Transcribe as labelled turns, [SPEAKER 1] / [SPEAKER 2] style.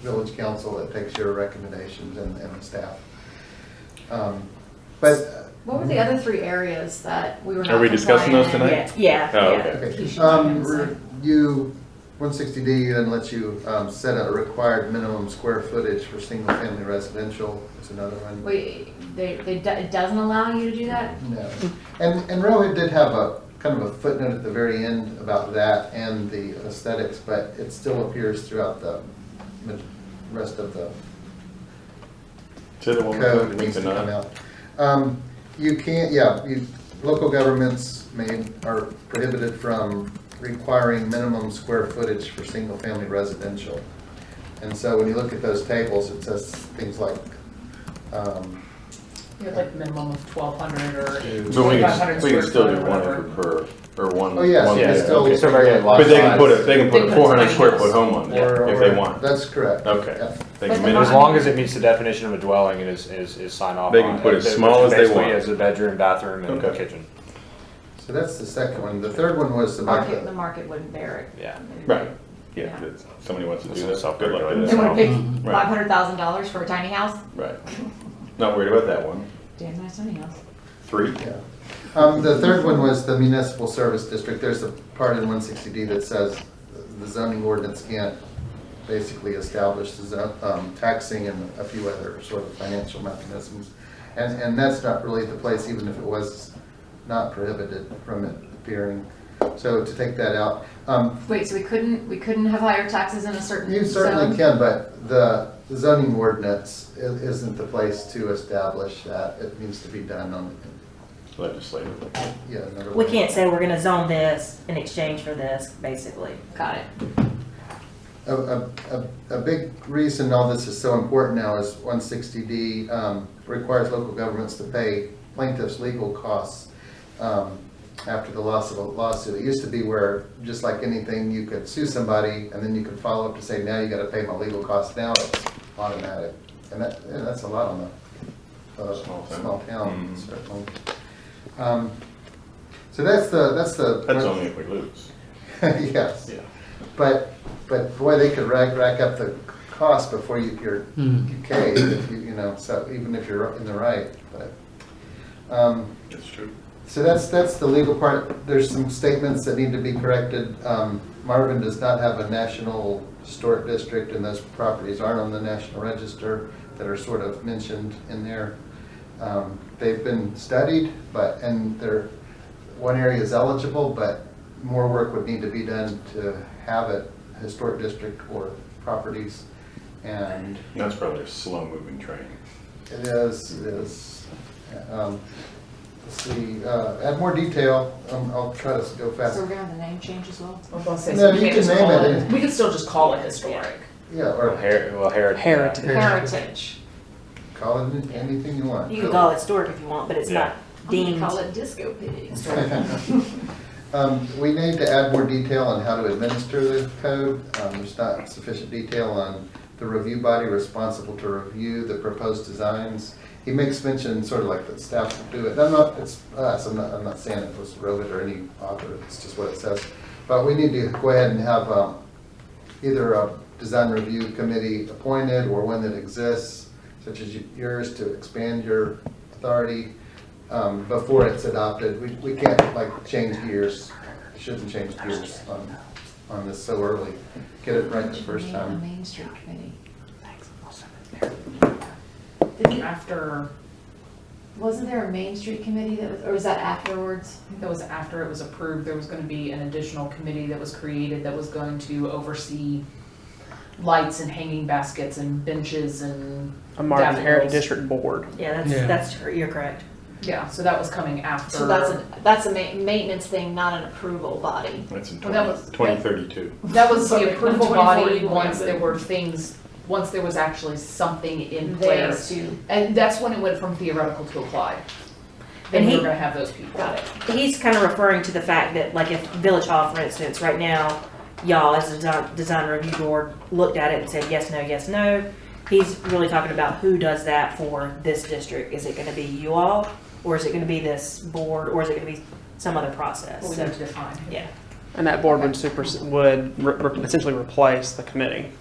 [SPEAKER 1] village council that takes your recommendations and, and the staff. Um, But,
[SPEAKER 2] What were the other three areas that we were not
[SPEAKER 3] Are we discussing those
[SPEAKER 2] compliant in?
[SPEAKER 3] tonight?
[SPEAKER 4] Yeah, yeah.
[SPEAKER 3] Oh,
[SPEAKER 4] yeah.
[SPEAKER 1] okay,
[SPEAKER 2] You should
[SPEAKER 1] um,
[SPEAKER 2] look inside.
[SPEAKER 1] you, one sixty D then lets you, um, set a required minimum square footage for single-family residential, is another one.
[SPEAKER 2] We, they, they, do- it doesn't allow you to do that?
[SPEAKER 1] No. And, and Rohit did have a, kind of a footnote at the very end about that and the aesthetics, but it still appears throughout the ma- rest of the
[SPEAKER 3] To the one we're
[SPEAKER 1] code
[SPEAKER 3] doing
[SPEAKER 1] needs to come
[SPEAKER 3] tonight.
[SPEAKER 1] out. Um, You can't, yeah, you, local governments may, are prohibited from requiring minimum square footage for single-family residential. And so when you look at those tables, it says things like, um,
[SPEAKER 5] You have like minimum of twelve hundred or
[SPEAKER 3] But we
[SPEAKER 5] twenty-five
[SPEAKER 3] can,
[SPEAKER 5] hundred
[SPEAKER 3] we
[SPEAKER 5] square
[SPEAKER 3] can still
[SPEAKER 5] foot
[SPEAKER 3] do
[SPEAKER 5] or
[SPEAKER 3] one
[SPEAKER 5] whatever.
[SPEAKER 3] acre per, or one.
[SPEAKER 1] Oh, yes,
[SPEAKER 3] one
[SPEAKER 1] you can
[SPEAKER 3] acre.
[SPEAKER 1] still-
[SPEAKER 3] Okay.
[SPEAKER 1] So very lot
[SPEAKER 3] But they can put a,
[SPEAKER 1] size.
[SPEAKER 3] they can put
[SPEAKER 2] They
[SPEAKER 3] a
[SPEAKER 2] can
[SPEAKER 3] four hundred square
[SPEAKER 2] tiny
[SPEAKER 3] foot home on there
[SPEAKER 1] or-
[SPEAKER 3] if they
[SPEAKER 1] or-
[SPEAKER 3] want.
[SPEAKER 1] That's correct.
[SPEAKER 3] Okay.
[SPEAKER 1] Yeah.
[SPEAKER 3] They
[SPEAKER 2] But
[SPEAKER 3] can
[SPEAKER 2] the
[SPEAKER 3] min-
[SPEAKER 6] As long as it meets the definition of a dwelling and is, is, is signed off on.
[SPEAKER 3] They can put as small as they
[SPEAKER 6] Basically,
[SPEAKER 3] want.
[SPEAKER 6] As a bedroom, bathroom, and
[SPEAKER 3] Okay.
[SPEAKER 6] kitchen,
[SPEAKER 1] So that's the second one. The third one was about
[SPEAKER 2] Market, the
[SPEAKER 1] the,
[SPEAKER 2] market wouldn't bear it.
[SPEAKER 6] yeah.
[SPEAKER 3] Right,
[SPEAKER 2] Yeah.
[SPEAKER 3] yeah, that's- somebody wants to
[SPEAKER 6] That's
[SPEAKER 3] do that,
[SPEAKER 6] not
[SPEAKER 3] good luck
[SPEAKER 6] self-regulated.
[SPEAKER 3] with
[SPEAKER 2] They
[SPEAKER 3] that.
[SPEAKER 1] Mm-hmm.
[SPEAKER 2] wanna pick
[SPEAKER 3] Right.
[SPEAKER 2] five hundred thousand dollars for a tiny house?
[SPEAKER 3] Right, not worried about that one.
[SPEAKER 2] Damn nice tiny house.
[SPEAKER 3] Three,
[SPEAKER 1] yeah. Um, the third one was the municipal service district. There's a part in one sixty D that says the zoning ordinance can't basically establish the zone, um, taxing and a few other sort of financial mechanisms. And, and that's not really the place, even if it was not prohibited from it appearing. So to take that out, um,
[SPEAKER 2] Wait, so we couldn't, we couldn't have higher taxes in a certain
[SPEAKER 1] You certainly can,
[SPEAKER 2] zone?
[SPEAKER 1] but the zoning ordinance i- isn't the place to establish that. It needs to be done on,
[SPEAKER 3] legislative.
[SPEAKER 1] yeah, another
[SPEAKER 4] We
[SPEAKER 1] way.
[SPEAKER 4] can't say we're gonna zone this in exchange for this, basically.
[SPEAKER 2] Got it.
[SPEAKER 1] A, a, a, a big reason all this is so important now is one sixty D, um, requires local governments to pay plaintiffs' legal costs, um, after the loss of a lawsuit. It used to be where, just like anything, you could sue somebody and then you could follow up to say, now you gotta pay my legal costs. Now it's automatic. And that, yeah, that's a lot on a, a
[SPEAKER 3] Small town.
[SPEAKER 1] small town,
[SPEAKER 3] Mhm.
[SPEAKER 1] certainly. Um, so that's the, that's the.
[SPEAKER 3] That's only if we lose.
[SPEAKER 1] Yes. But, but boy, they could rack, rack up the cost before you, you're, you cave, if you, you know, so even if you're in the right, but. um,
[SPEAKER 3] That's true.
[SPEAKER 1] So that's, that's the legal part. There's some statements that need to be corrected. Um, Marvin does not have a national historic district and those properties aren't on the national register that are sort of mentioned in there. Um, They've been studied, but, and they're, one area is eligible, but more work would need to be done to have it historic district or properties. And
[SPEAKER 3] That's probably a slow-moving train.
[SPEAKER 1] it is, it is. um, Let's see, uh, add more detail, um, I'll try to go
[SPEAKER 2] So we're
[SPEAKER 1] fast.
[SPEAKER 2] gonna have the name change as well?
[SPEAKER 5] I was gonna say,
[SPEAKER 1] No,
[SPEAKER 5] so we
[SPEAKER 1] you
[SPEAKER 5] can't
[SPEAKER 1] can
[SPEAKER 5] just
[SPEAKER 1] name
[SPEAKER 5] call
[SPEAKER 1] it
[SPEAKER 5] it,
[SPEAKER 1] any-
[SPEAKER 5] we could still just call it historic.
[SPEAKER 1] Yeah,
[SPEAKER 6] Well,
[SPEAKER 1] or
[SPEAKER 6] her, well, heritage.
[SPEAKER 7] Heritage.
[SPEAKER 2] Heritage.
[SPEAKER 1] call it anything you want.
[SPEAKER 4] You can call it historic if you want, but it's not
[SPEAKER 2] I'm gonna
[SPEAKER 4] deemed.
[SPEAKER 2] Oh, call it disco pig.
[SPEAKER 1] Um, We need to add more detail on how to administer the code. Um, There's not sufficient detail on the review body responsible to review the proposed designs. He makes mention, sort of like that staff would do it. I'm not, it's us, I'm not, I'm not saying it was Rovit or any author, it's just what it says. But we need to go ahead and have um, either a design review committee appointed or one that exists, such as yours, to expand your authority um, before it's adopted. We, we can't like change gears, shouldn't change gears on, on this so early. Get it right the first
[SPEAKER 2] Name the
[SPEAKER 1] time.
[SPEAKER 2] Main Street Committee.
[SPEAKER 5] Didn't after,
[SPEAKER 2] Wasn't there a Main Street Committee that was, or was that afterwards?
[SPEAKER 5] I think that was after it was approved, there was gonna be an additional committee that was created that was going to oversee lights and hanging baskets and benches and,
[SPEAKER 7] A Marvin Heritage
[SPEAKER 5] Daffodils.
[SPEAKER 7] District Board.
[SPEAKER 4] Yeah,
[SPEAKER 7] Yeah.
[SPEAKER 4] that's, that's, cor- you're correct.
[SPEAKER 5] yeah, so that was coming after.
[SPEAKER 2] So that's a, that's a ma- maintenance thing, not an approval body.
[SPEAKER 3] That's in
[SPEAKER 5] Well, that was-
[SPEAKER 3] twenty thirty-two.
[SPEAKER 5] That was the approval body
[SPEAKER 2] 24
[SPEAKER 5] once
[SPEAKER 2] yeah.
[SPEAKER 5] there were things, once there was actually something in
[SPEAKER 2] There
[SPEAKER 5] place.
[SPEAKER 2] to-
[SPEAKER 5] And that's when it went from theoretical to applied. Then
[SPEAKER 4] And
[SPEAKER 5] we
[SPEAKER 4] he-
[SPEAKER 5] were gonna have those people.
[SPEAKER 2] Got it.
[SPEAKER 4] He's kind of referring to the fact that, like, if Village Hall, for instance, right now, y'all as a design, design review board looked at it and said yes, no, yes, no. He's really talking about who does that for this district. Is it gonna be you all, or is it gonna be this board, or is it gonna be some other
[SPEAKER 5] But
[SPEAKER 4] process?
[SPEAKER 5] we
[SPEAKER 4] So,
[SPEAKER 5] need to define.
[SPEAKER 4] yeah.
[SPEAKER 7] And that board would super, would re- re- essentially replace the committee.